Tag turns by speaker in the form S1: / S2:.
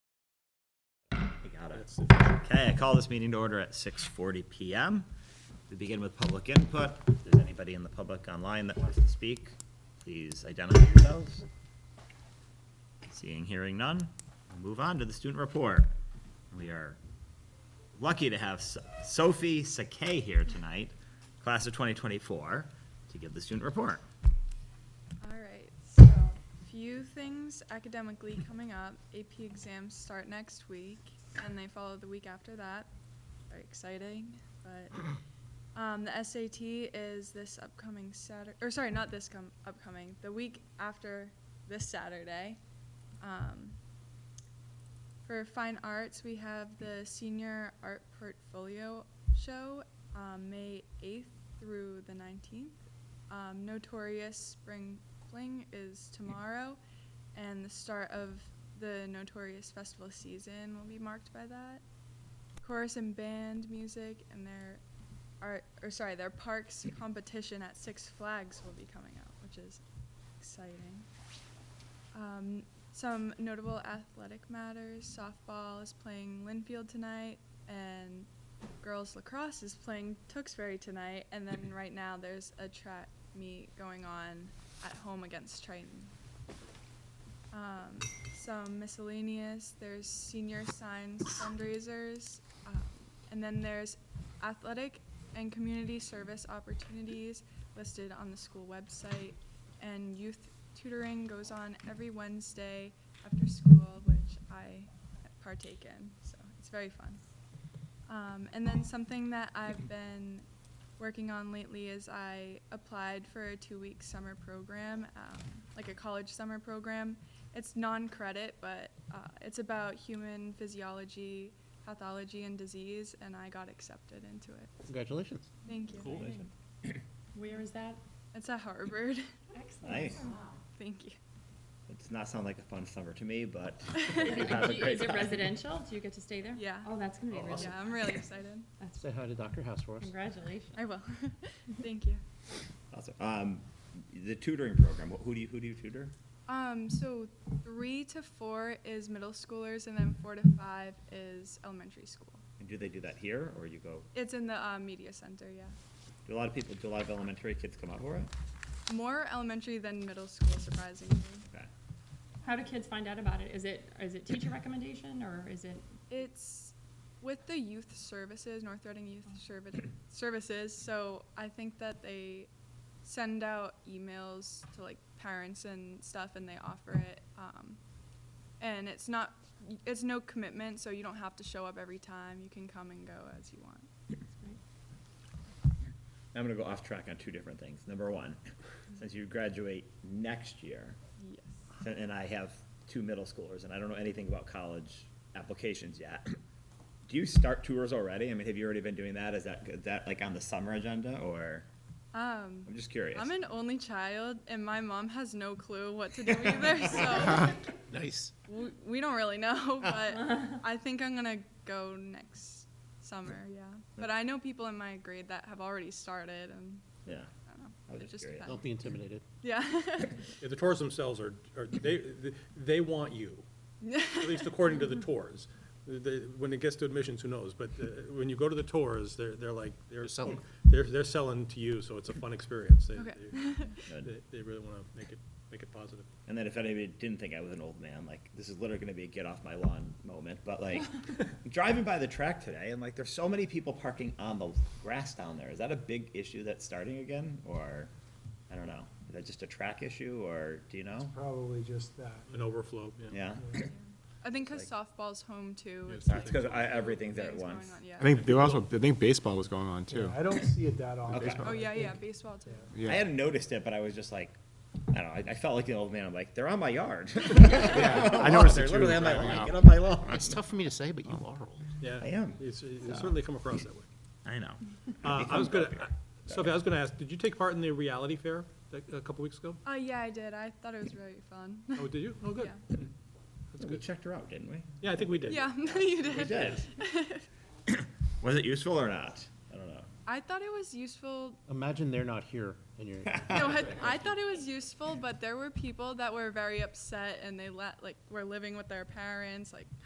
S1: out
S2: That's
S1: of.
S2: sufficient.
S1: Okay, I call this meeting to order at six forty PM. We begin with public input. If there's anybody in the public online that wants to speak, please identify yourselves. Seeing, hearing none, we'll move on to the student report. We are lucky to have So- Sophie Sakay here tonight, class of twenty twenty-four, to give the student report.
S3: All right, so few things academically coming up. AP exams start next week and they follow the week after that. Very exciting, but um, the SAT is this upcoming Saturday, or sorry, not this com- upcoming, the week after this Saturday. Um, for fine arts, we have the senior art portfolio show um, May 8th through the 19th. Um, Notorious Spring Fling is tomorrow, and the start of the Notorious festival season will be marked by that. Chorus and band music and their art, or sorry, their parks competition at Six Flags will be coming out, which is exciting. Um, some notable athletic matters. Softball is playing Linfield tonight, and girls lacrosse is playing Tewksbury tonight. And then right now there's a track meet going on at home against Triton. Um, some miscellaneous. There's senior signs fundraisers, um, and then there's athletic and community service opportunities listed on the school website. And youth tutoring goes on every Wednesday after school, which I partake in. So it's very fun. Um, and then something that I've been working on lately is I applied for a two week summer program, um, like a college summer program. It's non credit, but uh, it's about human physiology, pathology, and disease, and I got accepted into it.
S2: Congratulations.
S3: Thank you.
S2: Cool.
S4: Where is that?
S3: It's at Harvard.
S4: Excellent.
S1: Nice.
S3: Thank you.
S1: It does not sound like a fun summer to me, but. we've had a great
S4: Is it
S1: time.
S4: residential? Do you get to stay there?
S3: Yeah.
S4: Oh, that's gonna be really,
S3: Yeah, I'm really excited.
S4: that's,
S2: Say hi to Dr. House for us.
S4: congratulations.
S3: I will. Thank you.
S1: Awesome. Um, the tutoring program, who do you, who do you tutor?
S3: Um, so three to four is middle schoolers, and then four to five is elementary school.
S1: And do they do that here, or you go,
S3: It's in the uh, media center, yeah.
S1: do a lot of people, do a lot of elementary kids come out for it?
S3: More elementary than middle school, surprisingly.
S1: Okay.
S4: How do kids find out about it? Is it, is it teacher recommendation or is it,
S3: It's with the youth services, North Reading Youth Servi- Services. So I think that they send out emails to like parents and stuff, and they offer it. Um, and it's not, it's no commitment, so you don't have to show up every time. You can come and go as you want.
S1: I'm gonna go off track on two different things. Number one, since you graduate next year,
S3: Yes.
S1: so- and I have two middle schoolers, and I don't know anything about college applications yet. Do you start tours already? I mean, have you already been doing that? Is that, is that like on the summer agenda, or?
S3: Um,
S1: I'm just curious.
S3: I'm an only child, and my mom has no clue what to do either. so
S2: Nice.
S3: we, we don't really know. But I think I'm gonna go next summer. Yeah. But I know people in my grade that have already started, and
S1: Yeah,
S3: I
S1: I was
S3: don't know. It
S1: just
S3: just
S1: curious.
S3: depends.
S2: Don't be intimidated.
S3: Yeah.
S5: Yeah, The tours themselves are, are, they, they want you, at least according to the tours. The- the- when it gets to admissions, who knows, but uh, when you go to the tours, they're, they're like, they're selling, they're, they're selling to you, so it's a fun experience. They,
S3: Okay.
S5: they-
S1: Good.
S5: they- they really wanna make it, make it positive.
S1: And then if anybody didn't think I was an old man, like this is literally gonna be a get off my lawn moment, but like driving by the track today and like there's so many people parking on the grass down there. Is that a big issue that's starting again or I don't know. Is that just a track issue or do you know?
S6: Probably just that.
S5: An overflow, yeah.
S1: Yeah.
S3: I think 'cause softball's home too.
S5: Yeah,
S3: it's
S5: it's-
S1: That's because I, everything's there at
S3: things going
S1: once.
S3: on, yeah.
S7: I think there was also, I think baseball was going on
S6: Yeah,
S7: too.
S6: I don't see it that often.
S1: Okay.
S3: Oh yeah, yeah, baseball too.
S1: I
S7: Yeah,
S1: hadn't noticed it, but I was just like, I don't know, I, I felt like an old man. I'm like, they're on my yard.
S7: I noticed
S1: They're
S7: it too.
S1: literally on my
S7: driving
S1: lawn.
S7: out.
S1: Get on my lawn.
S2: It's tough for me to say, but you are old.
S5: Yeah.
S1: I am.
S5: It's, it's certainly come across that way.
S1: I know.
S5: Uh, I was gonna, uh, Sophie, I was gonna ask, did you take part in the reality fair that- a couple weeks ago?
S3: Oh yeah, I did. I thought it was really fun.
S5: Oh, did you? Oh, good.
S3: Yeah.
S5: That's
S1: We
S5: good.
S1: checked her out, didn't we?
S5: Yeah, I think we did.
S3: Yeah, you
S1: We
S3: did.
S1: did. Was it useful or not? I don't know.
S3: I thought it was useful
S2: Imagine they're not here and you're,
S3: No, I, I thought it was useful, but there were people that were very upset and they let, like, were living with their parents, like,